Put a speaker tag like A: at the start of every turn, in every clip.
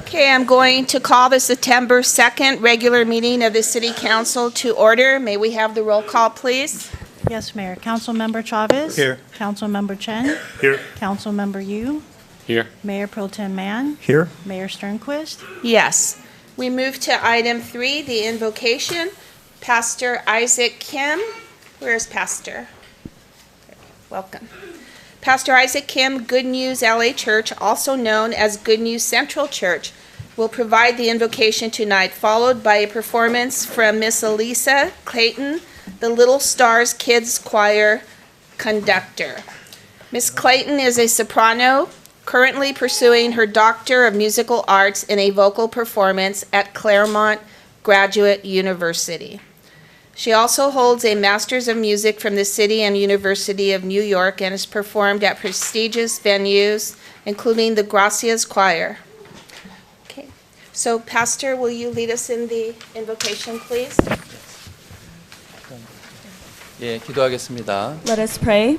A: Okay, I'm going to call the September 2nd regular meeting of the City Council to order. May we have the roll call, please?
B: Yes, Mayor. Councilmember Chavez.
C: Here.
B: Councilmember Chen.
C: Here.
B: Councilmember Yu.
D: Here.
B: Mayor Pro Tem Mann.
C: Here.
B: Mayor Sternquist.
A: Yes. We move to item three, the invocation. Pastor Isaac Kim, where's Pastor? Welcome. Pastor Isaac Kim, Good News LA Church, also known as Good News Central Church, will provide the invocation tonight, followed by a performance from Miss Elisa Clayton, the Little Stars Kids Choir conductor. Miss Clayton is a soprano, currently pursuing her Doctor of Musical Arts in a vocal performance at Claremont Graduate University. She also holds a Master's of Music from the City and University of New York and has performed at prestigious venues, including the Gracias Choir. Okay, so Pastor, will you lead us in the invocation, please?
D: 예, 기도하겠습니다.
E: Let us pray.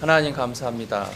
D: 하나님 감사합니다.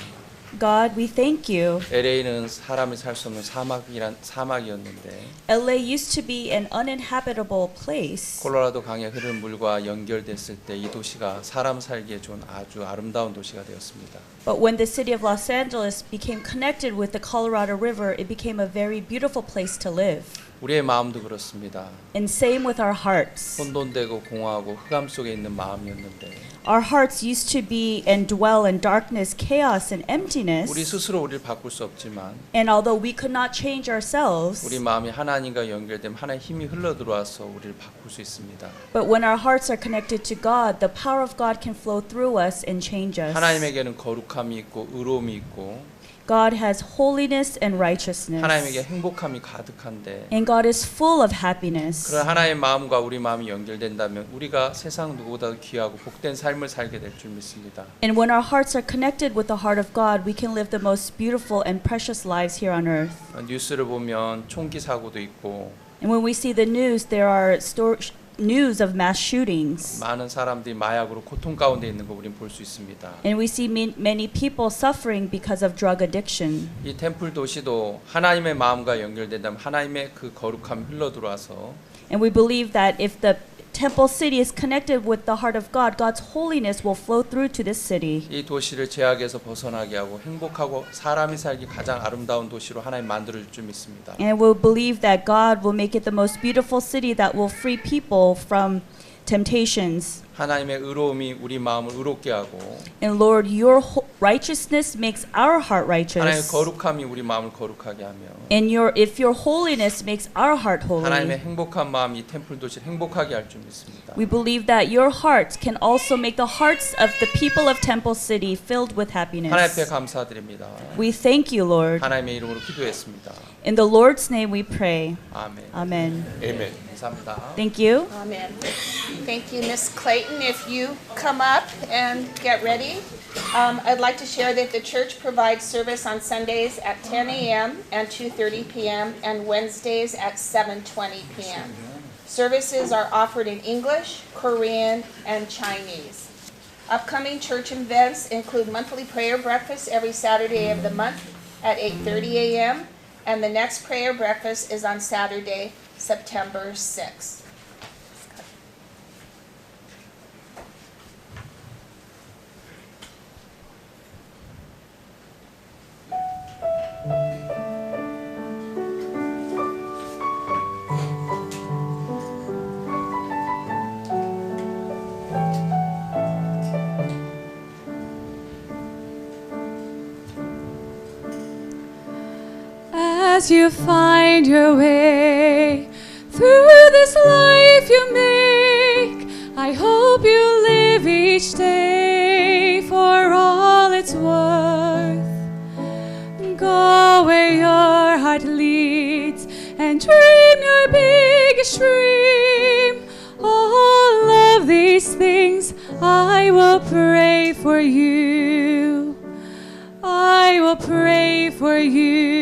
E: God, we thank you.
D: LA는 사람이 살 수 없는 사막이란 사막이었는데
E: LA used to be an uninhabitable place.
D: 콜로라도 강에 흐르는 물과 연결됐을 때 이 도시가 사람 살기에 좋은 아주 아름다운 도시가 되었습니다.
E: But when the city of Los Angeles became connected with the Colorado River, it became a very beautiful place to live.
D: 우리의 마음도 그렇습니다.
E: And same with our hearts.
D: 혼돈되고 공허하고 흑암 속에 있는 마음이었는데
E: Our hearts used to be and dwell in darkness, chaos, and
D: 우리
E: emptiness.
D: 스스로 우리를 바꿀 수 없지만
E: And although we could not change ourselves,
D: 우리 마음이 하나님과 연결되면 하나님의 힘이 흘러 들어와서 우리를 바꿀 수 있습니다.
E: but when our hearts are connected to God, the power of God can flow through us and change us.
D: 하나님에게는 거룩함이 있고 의로움이 있고
E: God has holiness and righteousness.
D: 하나님에게 행복함이 가득한데
E: And God is full of happiness.
D: 그런 하나님의 마음과 우리 마음이 연결된다면 우리가 세상 누구보다도 귀하고 복된 삶을 살게 될 줄 믿습니다.
E: And when our hearts are connected with the heart of God, we can live the most beautiful and precious lives here on earth.
D: 어, 뉴스를 보면 총기 사고도 있고
E: And when we see the news, there are stor- sh- news of mass shootings.
D: 많은 사람들이 마약으로 고통 가운데 있는 거 우리는 볼 수 있습니다.
E: And we see min- many people suffering because of drug addiction.
D: 이 템플 도시도 하나님의 마음과 연결된다면 하나님의 그 거룩함이 흘러 들어와서
E: And we believe that if the temple city is connected with the heart of God, God's holiness will flow through to this city.
D: 이 도시를 제약에서 벗어나게 하고 행복하고 사람이 살기 가장 아름다운 도시로 하나님 만들어 줄 줄 믿습니다.
E: And we'll believe that God will make it the most beautiful city that will free people from temptations.
D: 하나님의 의로움이 우리 마음을 의롭게 하고
E: And Lord, your ho- righteousness makes our heart
D: 하나님의
E: righteous.
D: 거룩함이 우리 마음을 거룩하게 하며
E: And your if your holiness makes our heart
D: 하나님의
E: holy.
D: 행복한 마음이 템플 도시를 행복하게 할 줄 믿습니다.
E: We believe that your heart can also make the hearts of the people of Temple City filled with
D: 하나님 앞에
E: happiness.
D: 감사드립니다.
E: We thank you, Lord.
D: 하나님의 이름으로 기도했습니다.
E: In the Lord's name we pray.
D: 아멘.
E: Amen.
D: 아멘. 감사합니다.
E: Thank you.
A: Amen. Thank you, Miss Clayton. If you come up and get ready, um, I'd like to share that the church provides service on Sundays at 10 a.m. and 2:30 p.m. and Wednesdays at 7:20 p.m. Services are offered in English, Korean, and Chinese. Upcoming church events include monthly prayer breakfast every Saturday of the month at 8:30 a.m. and the next prayer breakfast is on Saturday, September 6th.
F: As you find your way through this life you make, I hope you live each day for all it's worth. Go where your heart leads and dream your biggest dream. All of these things I will pray for you. I will pray for you.